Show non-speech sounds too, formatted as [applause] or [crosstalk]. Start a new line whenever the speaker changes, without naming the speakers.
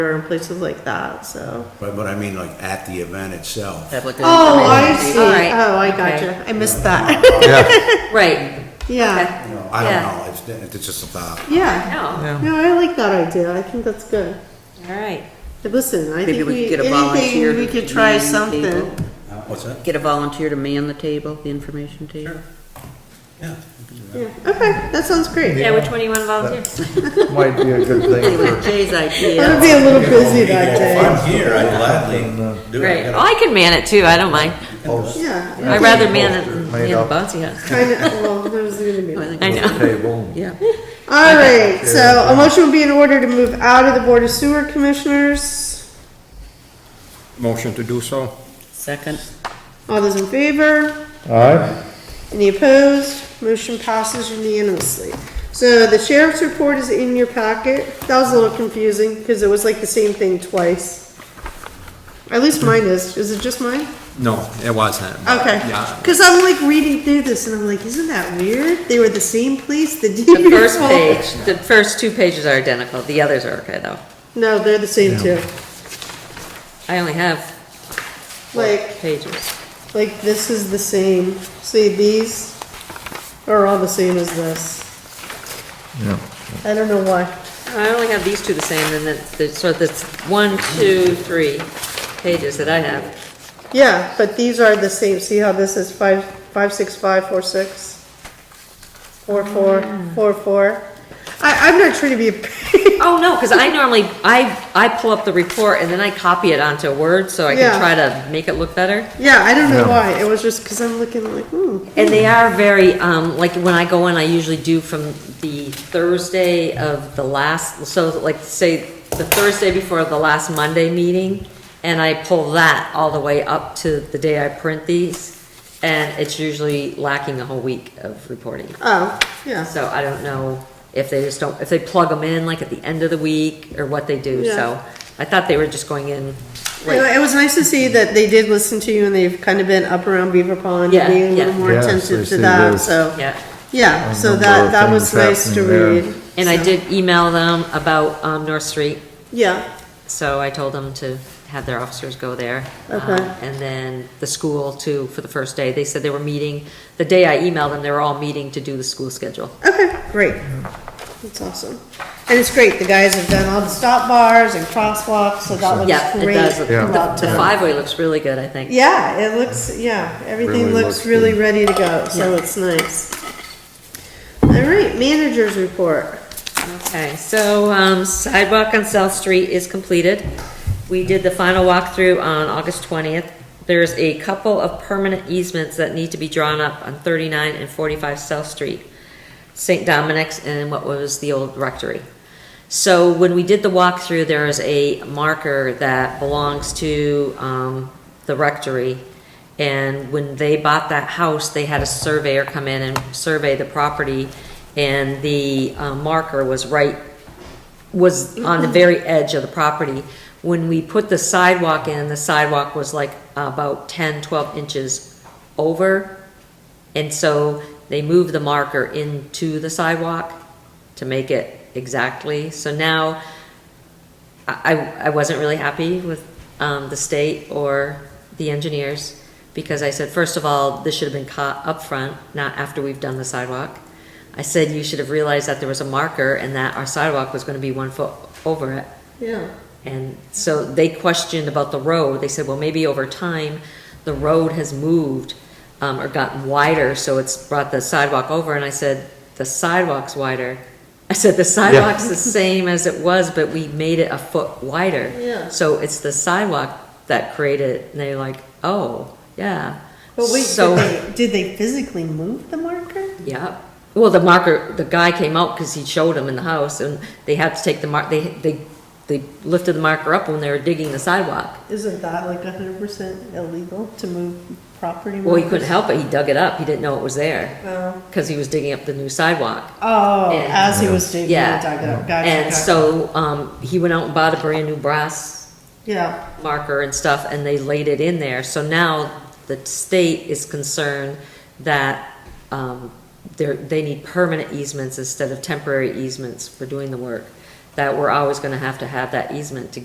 and places like that, so.
But, but I mean like at the event itself.
Have like a-
Oh, I
All
see.
right.
Oh, I
Okay.
gotcha. I missed that.
Yeah,
Right.
[laughs]
Uh,
Yeah,
You know, I don't
Yeah.
know, it's, it's just a thought.
yeah.
No,
No, I like that idea. I think that's good.
all right.
But Listen, I
Maybe
think
we could
we,
get a
anything,
volunteer
we
to
could try
man the
something.
table.
What's that?
Get a volunteer to man the table, the information table.
Yeah.
Yeah, okay, that sounds great.
Yeah, which one do you want to volunteer?
might be a good
It
thing
was Jay's
I'm
idea.
gonna be a little busy that day.
I'm here, I gladly do
Right.
it.
Oh, I can man it too, I don't mind.
for post
Yeah. I
I'd
think- [laughs]
rather man it than
Made
man the
up.
bouncy house.
Kind of, well, there's gonna
[laughs]
be.
I think
I
it's-
know.
table.
Yeah.
All right, so a motion would be in order to move out of the Board of Sewer Commissioners.
Motion to do so?
Second.
All those in favor?
All right,
Any opposed? Motion passes unanimously. So the sheriff's report is in your packet. That was a little confusing because it was like the same thing twice. At least mine is. Is it just mine?
No, it wasn't.
Okay.
Yeah.
Because I'm like reading through this and I'm like, isn't that weird? They were the same place, the [laughs]
The
deed
[laughs] first page, the first two pages are identical, the others are okay though.
No, they're the same too.
I only have
Like,
pages.
like this is the same. See, these are all the same as this.
Yeah.
I don't know why.
I only have these two the same, and then, the- so that's one, two, three pages that I have.
Yeah, but these are the same, see how this is five, five, six, five, four, six? Four, four, four, four. I, I'm not trying to be a [laughs] pain.
Oh, no, because I normally, I, I pull up the report and then I copy it onto Word, so I
Yeah.
can try to make it look better.
Yeah, I don't know why, it was just because I'm looking like, hmm,
And they are very, um, like, when I go in, I usually do from the Thursday of the last, so like, say, the Thursday before the last Monday meeting, and I pull that all the way up to the day I print these, and it's usually lacking a whole week of reporting.
oh, yeah.
So I don't know if they just don't, if they plug them in like at the end of the week or what they do,
Yeah.
so I thought they were just going in.
Anyway, It was nice to see that they did listen to you and they've kind of been up around Beaver Pond
Yeah,
and being a
yeah.
little more
Yeah, so
attentive
you
to
see
that,
there's-
so.
Yeah,
Yeah,
A
so
number
that,
of
that was
things
nice to
happening there.
read.
and I
so-
did email them about, um, North Street,
Yeah,
so I told them to have their officers go there. Um,
Okay.
And then the school too, for the first day, they said they were meeting, the day I emailed them, they were all meeting to do the school schedule.
okay, great. That's awesome. And it's great, the guys have done all the stop bars and crosswalks, so that
Yeah,
looks
it
Oh, great.
does,
Yeah.
about
the, the
that.
five-way looks really good, I think.
Yeah, it looks, yeah, everything
Really
looks
looks
really
good.
ready to go, so it's nice. All right, managers report.
Okay, so um, sidewalk on South Street is completed. We did the final walkthrough on August 20th. There's a couple of permanent easements that need to be drawn up on 39 and 45 South Street, St. Dominic's and what was the old rectory. So when we did the walkthrough, there is a marker that belongs to um, the rectory. And when they bought that house, they had a surveyor come in and survey the property. And the uh, marker was right, was on the very edge of the property. When we put the sidewalk in, the sidewalk was like about 10, 12 inches over. And so they moved the marker into the sidewalk to make it exactly. So now, I, I- I wasn't really happy with um, the state or the engineers, because I said, first of all, this should have been caught up front, not after we've done the sidewalk. I said, you should have realized that there was a marker and that our sidewalk was gonna be one foot over it.
Yeah.
And so they questioned about the road. They said, well, maybe over time, the road has moved um, or gotten wider, so it's brought the sidewalk over. And I said, the sidewalk's wider. I said, the sidewalk's the same as it was, but we made it a foot wider.
Yeah.
So it's the sidewalk that created, it." and they're like, oh, yeah.
But wait,
So-
did they, did they physically move the marker?
yeah. Well, the marker, the guy came out because he showed him in the house and they had to take the mark, they, they, they lifted the marker up when they were digging the sidewalk.
Isn't that like hundred percent illegal to move property?
Well, he
markers?
couldn't help it, he dug it up, he didn't know it was there,
Oh,
because he was digging up the new sidewalk.
Oh,
And-
as he was digging, he
Yeah.
dug it up, gotcha,
And
gotcha.
so, um, he went out and bought a brand new brass
Yeah,
marker and stuff, and they laid it in there, so now the state is concerned that, um, they're, they need permanent easements instead of temporary easements for doing the work, that we're always gonna have to have that easement to